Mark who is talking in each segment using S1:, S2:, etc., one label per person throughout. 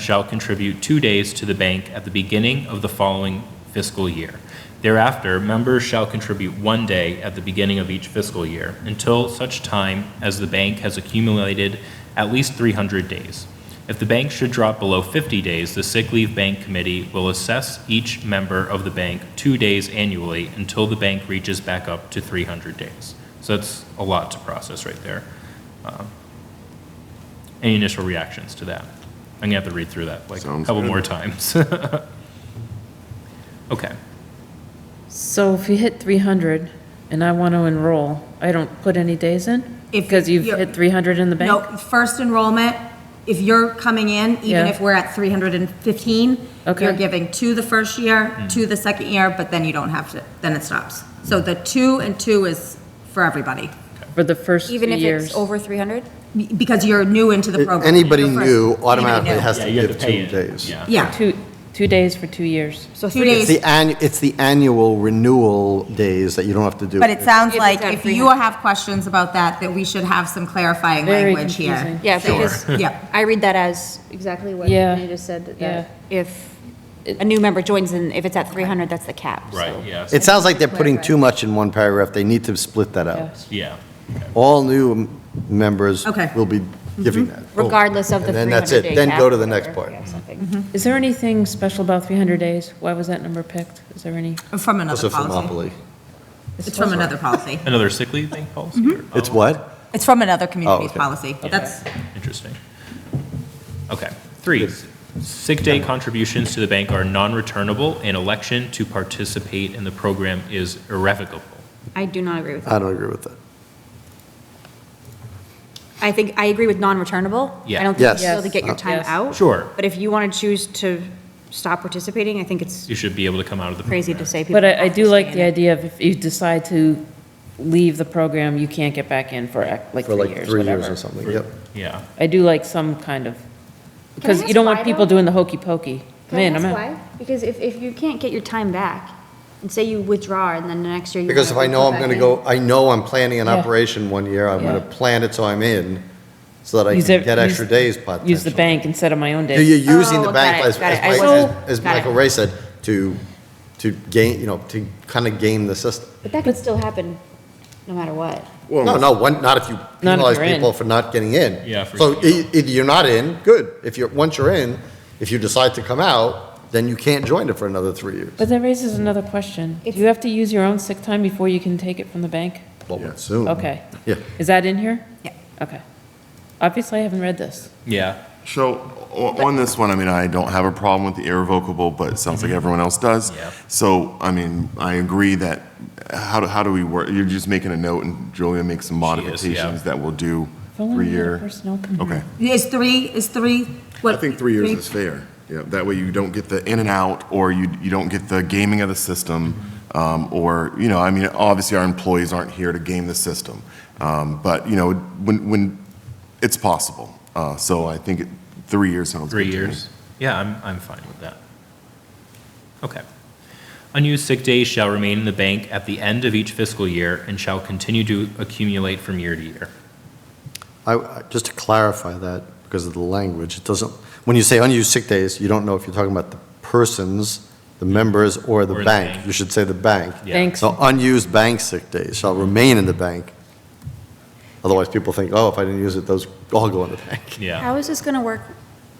S1: shall contribute two days to the bank at the beginning of the following fiscal year. Thereafter, members shall contribute one day at the beginning of each fiscal year until such time as the bank has accumulated at least 300 days. If the bank should drop below 50 days, the Sick Leave Bank Committee will assess each member of the bank two days annually until the bank reaches back up to 300 days. So that's a lot to process right there. Um, Any initial reactions to that? I'm gonna have to read through that like a
S2: Sounds
S1: couple
S2: good.
S1: more times. Okay.
S3: So if you hit 300 and I want to enroll, I don't put any days in?
S4: If
S3: Because you've
S4: you're-
S3: hit 300 in the
S4: No,
S3: bank?
S4: first enrollment, if you're coming in, even
S3: Yeah.
S4: if we're at 315, you're
S3: Okay.
S4: giving two the first year, two the second year, but then you don't have to, then it stops. So the two and two is for everybody,
S3: For the first two
S5: Even if
S3: years?
S5: it's over 300?
S4: be- because you're new into the program.
S2: Anybody
S4: You're first-
S2: new
S4: anybody
S2: automatically
S4: new.
S2: has
S1: Yeah,
S2: to
S1: you have
S2: give
S1: to pay
S2: two
S1: it.
S2: days.
S1: Yeah.
S4: Yeah,
S3: Two, two days for two years.
S5: So
S4: two
S5: three-
S2: It's the
S4: days,
S2: annu, it's the annual renewal days that you don't have to do.
S4: but it sounds
S5: If it's
S4: like
S5: at
S4: if you
S5: 300.
S4: have questions about that, that we should have some clarifying
S3: Very
S4: language here.
S3: confusing.
S5: Yeah, because
S4: Yep,
S5: I read that as exactly what
S3: Yeah.
S5: Renee just said,
S3: Yeah.
S5: that if a new member joins and if it's at 300, that's the cap. so.
S1: Right, yes,
S2: It sounds like they're putting too much in one paragraph. They need to split that out.
S3: Yes.
S1: yeah.
S2: All new m- members
S4: Okay.
S2: will be giving that.
S5: Regardless of the
S2: And then
S5: 300 day
S2: that's it. Then go to the next part.
S3: Mm-hmm. Is there anything special about 300 days? Why was that number picked? Is there any?
S4: from
S2: Also
S4: another
S2: from
S4: policy.
S2: Monopoly.
S4: It's from another policy.
S1: Another sick leave thing policy? or-
S2: Mm-hmm. It's
S1: oh,
S2: what?
S4: It's from another
S2: Oh,
S4: communities
S2: okay.
S4: policy. That's,
S1: Interesting. Okay, three, sick day contributions to the bank are non-returnable, and election to participate in the program is irrevocable.
S5: I do not agree with that.
S2: I don't agree with that.
S5: I think, I agree with non-returnable.
S1: Yeah.
S5: I don't think you
S2: Yes.
S5: still have to get your time
S3: Yes.
S5: out.
S1: Sure.
S5: But if you want to choose to stop participating, I think it's
S1: You should be able to come out of the
S5: crazy
S1: program.
S5: to say people.
S3: But I, I
S5: have to
S3: do
S5: stay
S3: like
S5: in
S3: the
S5: it.
S3: idea of if you decide to leave the program, you can't get back in for ac- like
S2: For
S3: three
S2: like
S3: years,
S2: three years or
S3: whatever.
S2: something. Yep.
S1: Yeah,
S3: I do like some kind of, because you
S5: ask
S3: don't want
S5: why,
S3: people
S5: though?
S3: doing the hokey pokey.
S5: Can I
S3: Man, I'm
S5: ask
S3: out.
S5: why? Because if, if you can't get your time back, and say you withdraw and then the next year you.
S2: Because if I
S5: wanna
S2: know I'm
S5: back
S2: going to
S5: in,
S2: go, I know I'm planning an
S3: Yeah.
S2: operation one year, I'm going
S3: Yeah.
S2: to plan it so I'm in, so that I
S3: Use
S2: can
S3: it-
S2: get extra
S3: use-
S2: days
S3: Use the
S2: potentially.
S3: bank instead of my own
S2: You're
S3: days.
S2: using
S5: Oh,
S2: the bank
S5: got it,
S2: as,
S5: got
S2: as
S5: it. I
S2: Mike-
S5: wasn't-
S2: as- as
S5: got it.
S2: Michael Ray said, to, to gain, you know, to kind of game the system.
S5: But that could still happen, no matter what.
S2: No, no, one, not if you
S3: Not if
S2: penalize
S3: you're in.
S2: people for not getting in.
S1: Yeah, for-
S2: So e- either you're not in, good. If you're, once you're in, if you decide to come out, then you can't join it for another three years.
S3: But that raises another question. Do
S5: It's-
S3: you have to use your own sick time before you can take it from the bank?
S2: Well, soon.
S3: Okay.
S2: Yeah.
S3: Is that in here?
S4: yeah.
S3: Okay. Obviously, I haven't read this.
S1: yeah.
S6: So o- on this one, I mean, I don't have a problem with the irrevocable, but it sounds like everyone else does.
S1: Mm-hmm. Yeah.
S6: So, I mean, I agree that, how do, how do we work? You're just making a note and Julia makes some
S1: yeah.
S6: modifications that will do
S3: If only we had a
S6: three-year.
S3: Personnel committee.
S6: Okay.
S4: Is three, is three?
S6: Mm-hmm. I think three years is fair. Yeah, that way you don't get the in and out, or you, you don't get the gaming of the system, um, or, you know, I mean, obviously our employees aren't here to game the system. Um, but, you know, when, when, it's possible. Uh, so I think it- three years sounds good
S1: Three
S6: to me.
S1: years? Yeah, I'm, I'm fine with that. Okay. Unused sick days shall remain in the bank at the end of each fiscal year and shall continue to accumulate from year to year.
S2: I- I, just to clarify that, because of the language, it doesn't, when you say unused sick days, you don't know if you're talking about the persons, the members, or
S1: Mm-hmm. Or
S2: the
S1: the
S2: bank.
S1: bank.
S2: You should say the bank.
S1: Yeah.
S3: Thanks.
S2: So unused bank sick days shall remain in the bank. Otherwise, people think, oh, if I didn't use it, those all go in the bank.
S1: Yeah.
S5: How is this going to work?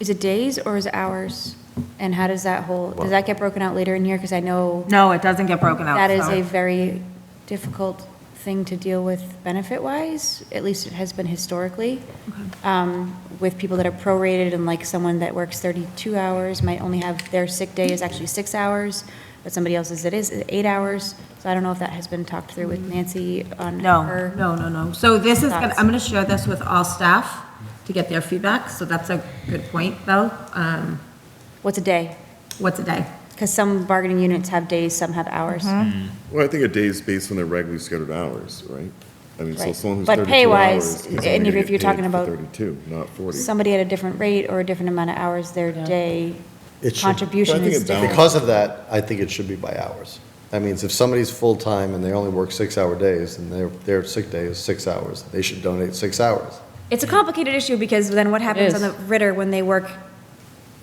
S5: Is it days or is it hours? And how does that whole, does that get broken out later in here? Because I know
S4: No, it doesn't get broken out.
S5: that is
S4: so-
S5: a very difficult thing to deal with benefit-wise, at least it has been historically, um, with people that are prorated and like someone that works 32 hours might only have, their sick day is actually six hours, but somebody else's it is eight hours. So I don't know if that has been talked through with Nancy on
S4: No,
S5: her.
S4: no, no, no. So this is, gonna-
S5: Thoughts?
S4: I'm going to share this with all staff to get their feedback, so that's a good point, though. Um,
S5: What's a day?
S4: What's a day?
S5: Because some bargaining units have days, some have hours.
S4: Mm-hmm.
S6: Well, I think a day is based on their regularly scheduled hours, right? I mean, so
S5: Right.
S6: someone who's
S5: But
S6: 32
S5: pay-wise,
S6: hours is only
S5: and
S6: gonna
S5: if
S6: get
S5: you're
S6: paid
S5: talking
S6: for
S5: about
S6: 32, not 40.
S5: Somebody at a different rate or a different amount of hours their day
S2: It should-
S6: But I
S5: contribution
S6: think
S5: is
S6: it
S5: different.
S2: Because of that, I think it should be by hours. That means if somebody's full-time and they only work six-hour days, and their, their sick day is six hours, they should donate six hours.
S5: It's a complicated issue because then what happens on
S3: is.
S5: the Ritter when they work